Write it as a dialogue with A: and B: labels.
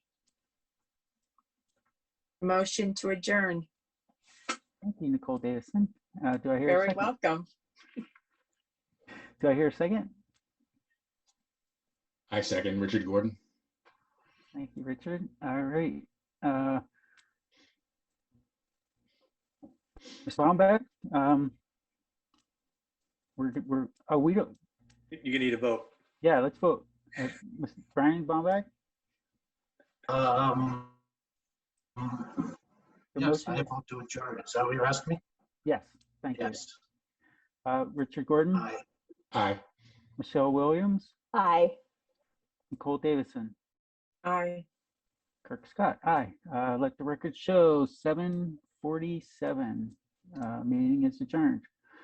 A: Motion to adjourn.
B: Thank you, Nicole Davison. Uh, do I hear a
A: Very
B: second?
A: welcome.
B: Do I hear a second?
C: I second Richard Gordon.
B: Thank you, Richard. All right. uh, Ms. Wamback, um, we're, we're, oh, we don't,
D: You're gonna need a vote.
B: yeah, let's vote. Uh, Ms. Brian Wamback?
E: Um,
B: the
E: yes,
B: motion?
E: I vote to adjourn. Is that what you're asking me?
B: Yes, thank you.
E: Yes,
B: Uh, Richard Gordon,
E: aye.
C: Aye.
B: Michelle Williams,
F: Aye.
B: Nicole Davison,
A: Aye.
B: Kirk Scott, aye. Uh, Let the record show, 7:47. Uh, Meeting is adjourned.